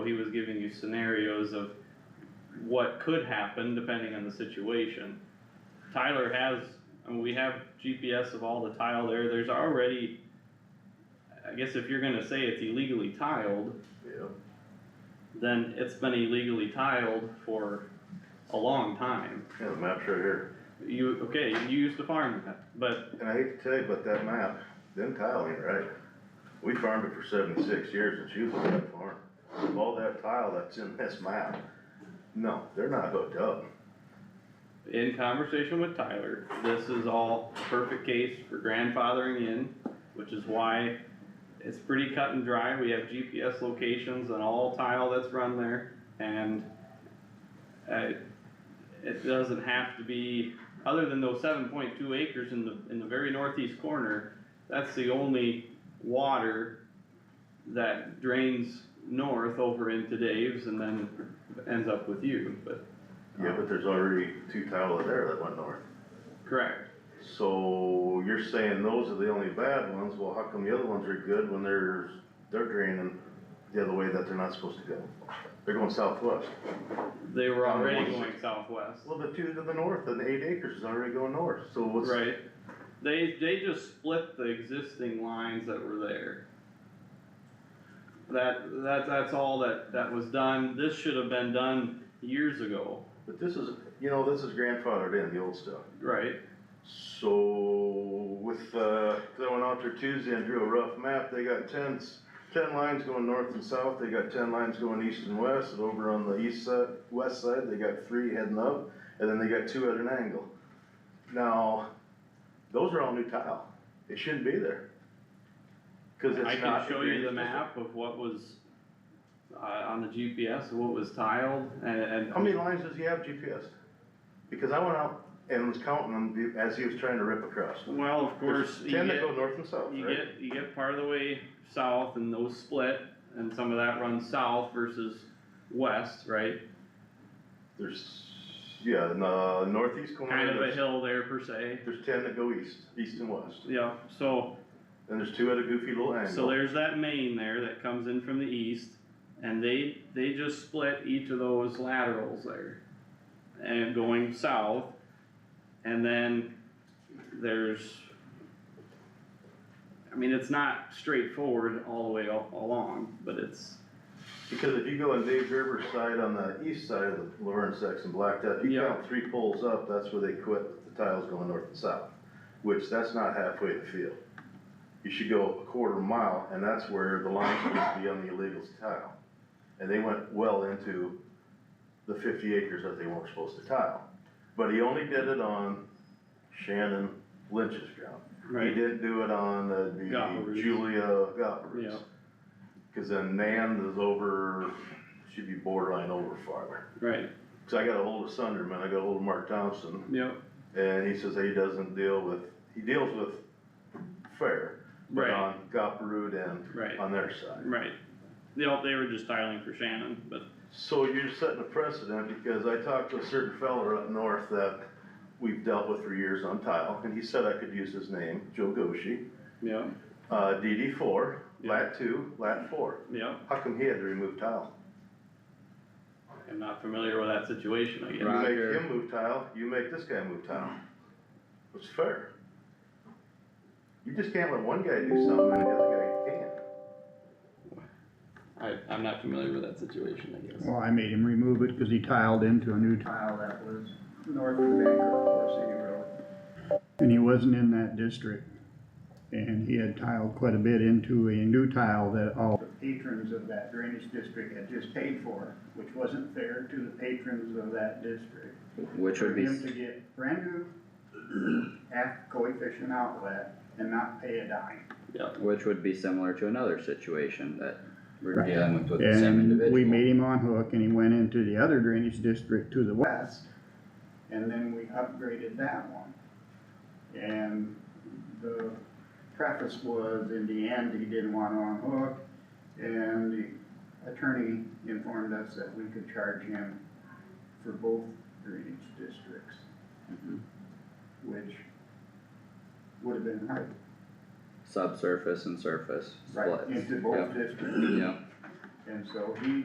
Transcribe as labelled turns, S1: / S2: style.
S1: you scenarios of what could happen depending on the situation. Tyler has, I mean, we have GPS of all the tile there, there's already, I guess if you're gonna say it's illegally tiled,
S2: Yeah,
S1: then it's been illegally tiled for a long time.
S2: yeah, the map's right here,
S1: You, okay, you used to farm that, but
S2: and I hate to tell you about that map, them tile ain't right. We farmed it for seventy-six years and she was on that farm. Of all that tile that's in this map, no, they're not hooked up.
S1: in conversation with Tyler, this is all a perfect case for grandfathering in, which is why it's pretty cut and dry, we have GPS locations on all tile that's run there, and uh, it doesn't have to be, other than those seven point two acres in the, in the very northeast corner, that's the only water that drains north over into Dave's and then ends up with you, but.
S2: Yeah, but there's already two tile there that went north.
S1: Correct,
S2: So you're saying those are the only bad ones, well, how come the other ones are good when there's, they're draining the other way that they're not supposed to go? They're going southwest.
S1: they were
S2: On the
S1: already
S2: one
S1: going southwest,
S2: Well, the two to the north and the eight acres is already going north, so what's?
S1: right? They, they just split the existing lines that were there. That, that, that's all that, that was done, this should have been done years ago,
S2: But this is, you know, this is grandfathered in, the old stuff.
S1: right?
S2: So with, uh, 'cause I went out there Tuesday and drew a rough map, they got ten s- 10 lines going north and south, they got ten lines going east and west, and over on the east side, west side, they got three heading up, and then they got two at an angle. Now, those are all new tile, it shouldn't be there. Cause it's
S1: I
S2: not
S1: can
S2: a
S1: show you the
S2: drainage
S1: map of what was, uh, on the GPS, what was tiled and, and.
S2: How many lines does he have GPS? Because I went out and was counting them as he was trying to rip across.
S1: Well, of course,
S2: There's
S1: you
S2: Ten that
S1: get-
S2: go north and south,
S1: You
S2: right?
S1: get, you get part of the way south and those split, and some of that runs south versus west, right?
S2: There's, yeah, in the northeast
S1: Kind
S2: corner,
S1: of a
S2: there's,
S1: hill there per se,
S2: there's ten that go east, east and west.
S1: yeah, so,
S2: And there's two at a goofy little
S1: so
S2: angle.
S1: there's that main there that comes in from the east, and they, they just split each of those laterals there. And going south, and then there's, I mean, it's not straightforward all the way al- along, but it's,
S2: Because if you go on Dave Gerber's side on the east side of the Laverne section blacktop, you
S1: Yeah.
S2: count three poles up, that's where they quit with the tiles going north and south. Which, that's not halfway to the field. You should go a quarter mile, and that's where the line used to be on the illegals tile. And they went well into the fifty acres that they weren't supposed to tile. But he only did it on Shannon Lynch's ground. He
S1: right?
S2: didn't do it on the
S1: Gopler's.
S2: Julia Gophers.
S1: Yeah.
S2: Cause then Nan is over, should be borderline over farther.
S1: Right,
S2: Cause I got a hold of Sunderman, I got a hold of Mark Thompson,
S1: yep,
S2: and he says he doesn't deal with, he deals with fair. but
S1: right.
S2: On Goplerud and
S1: Right,
S2: on their side.
S1: right. They all, they were just tiling for Shannon, but
S2: So you're setting a precedent, because I talked to a certain fella up north that we've dealt with for years on tile, and he said I could use his name, Joe Goshi.
S1: yeah,
S2: Uh, DD four,
S1: Yeah.
S2: lat two, lat four.
S1: yeah.
S2: How come he had to remove tile?
S1: I'm not familiar with that situation, I
S2: You
S1: guess.
S2: make
S3: Roger.
S2: him move tile, you make this guy move tile. It's fair. You just can't let one guy do something and the other guy can't.
S1: I, I'm not familiar with that situation, I guess.
S3: Well, I made him remove it because he tiled into a new
S4: tile
S3: tile
S4: that was north of the Vancouver Four City Road.
S3: and he wasn't in that district. And he had tiled quite a bit into a new tile that all the patrons of that drainage district had just paid for, which wasn't fair to the patrons of that district.
S5: Which would be,
S3: For him to get brand new half coefficient outlet and not pay a dime.
S5: which would be similar to another situation that we're
S3: Right.
S5: dealing with with the same
S3: And
S5: individual.
S3: we made him on hook and he went into the other drainage district to the west. And then we upgraded that one. And the preface was in the end, he didn't want on hook. And the attorney informed us that we could charge him for both drainage districts,
S5: Mhm.
S3: which would have been right.
S5: Subsurface and surface
S3: Right,
S5: splits.
S3: into both
S5: Yep.
S3: districts.
S5: Yep.
S3: And so he